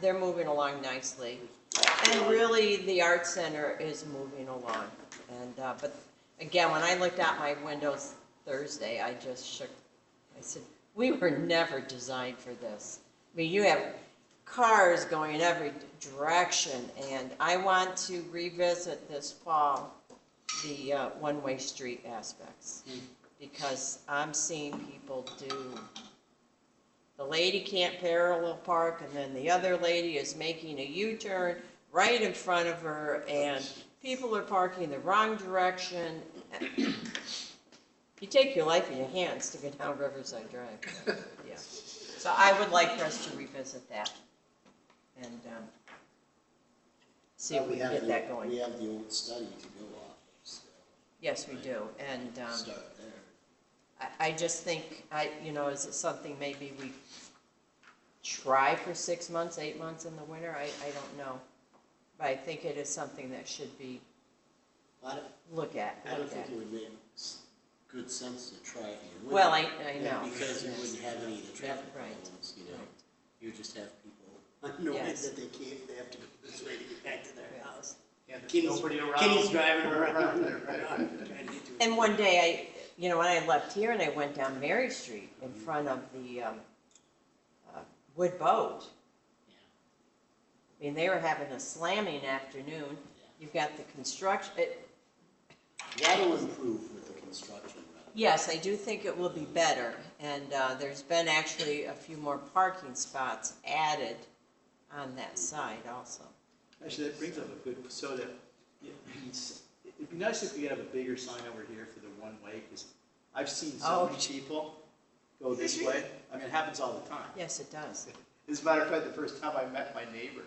they're moving along nicely. And really, the art center is moving along. And, uh, but again, when I looked out my windows Thursday, I just shook. I said, we were never designed for this. I mean, you have cars going in every direction and I want to revisit this fall the uh, one-way street aspects. Because I'm seeing people do the lady can't parallel park, and then the other lady is making a U-turn right in front of her, and people are parking the wrong direction. You take your life in your hands to get down Riverside Drive, yeah. So I would like for us to revisit that and, um, see if we can have get the- that going. We have the old study to go off, so Yes, we do, and, um. start there. I, I just think, I, you know, is it something maybe we try for six months, eight months in the winter? I, I don't know. But I think it is something that should be, I don't, look at, I don't look think at. it would make s- good sense to try it in the winter. Well, I, I and know. Because you wouldn't have any of the traffic Right. problems, you know, Right. you just have people annoyed Yes. that they can't, they have to go this way to get back to their Yes. house. Yeah, there's Kenny's- nobody around. Kenny's driving around, Right, right. trying to get to his- And one day, I, you know, when I left here and I went down Mary Street in front of the, um, uh, Wood Boat. I mean, they were having a slamming afternoon. You've got the construction, it, That'll improve with the construction route. Yes, I do think it will be better, and uh, there's been actually a few more parking spots added on that side also. Actually, that brings up a good, so that, yeah, it's- it'd be nice if we could have a bigger sign over here for the one-way, because I've seen Oh. so many people go this way. I mean, it happens all the time. Yes, it does. As a matter of fact, the first time I met my neighbor,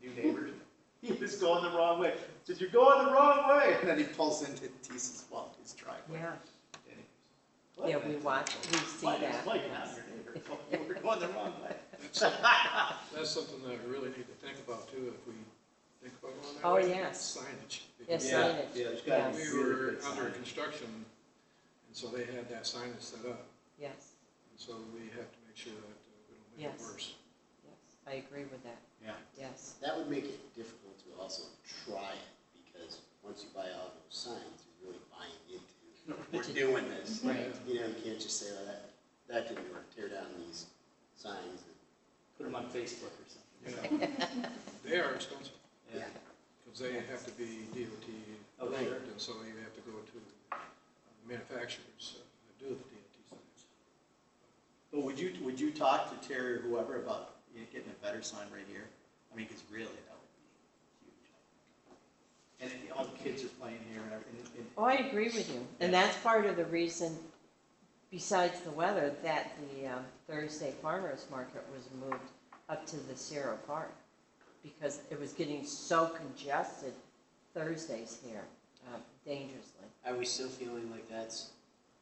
the new neighbor, he was going the wrong way. Said, you're going the wrong way, and then he pulls into Teese's, well, his driveway. Yeah, And he- "What?" yeah, we watch, we see Why- that. why you're not your neighbor? You were going the wrong way. That's something that we really need to think about too, if we think about going that Oh, way. yes. Signage. Yes, Yeah, signage, yeah, there's gotta be yes. We really were good under signage. construction, and so they had that signage set up, Yes, and so we have to make sure that uh, we don't make it Yes. worse. yes, I agree with that, Yeah. yes. That would make it difficult to also try it, because once you buy all those signs, you're really buying into, we're doing this. Right. You know, you can't just say, well, that, that didn't work, tear down these signs. Put them on Facebook or something. you know. They are expensive, Yeah. because they have to be DOT Oh, sure. approved, and so you have to go to uh, manufacturers uh, that do the DOT signs. But would you, would you talk to Terry or whoever about you know, getting a better sign right here? I mean, because really, that would be huge. And all the kids are playing here and everything. and- and- Oh, I agree with you, and Yeah. that's part of the reason, besides the weather, that the um, Thursday farmer's market was moved up to the Sierra Park, because it was getting so congested Thursdays here, uh, dangerously. Are we still feeling like that's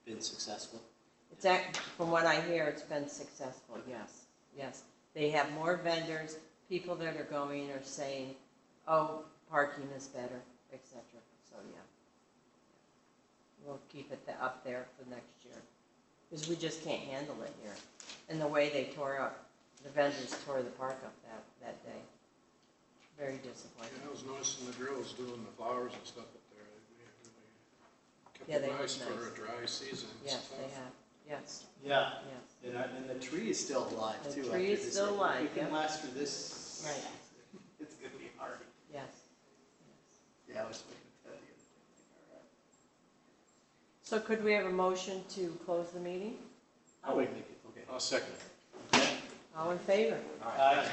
been successful? It's act, from what I hear, it's been successful, yes, yes. They have more vendors, people that are going are saying, oh, parking is better, et cetera, so, yeah. We'll keep it the- up there for next year, because we just can't handle it here. And the way they tore up, the vendors tore the park up that, that day. Very disappointing. Yeah, I was noticing the girls doing the flowers and stuff up there, they Yeah, they really kept look it nice for nice. a dry season. It's Yes, they tough. have, yes, Yeah, yes, and, I- and the tree is still alive The tree too. after is this. still If alive, It yeah. can last for this. Right. It's gonna be hard. yes. Yeah, I was looking at that the other day. So could we have a motion to close the meeting? All right. I would make it, okay. I'll second it. All in favor? Aye.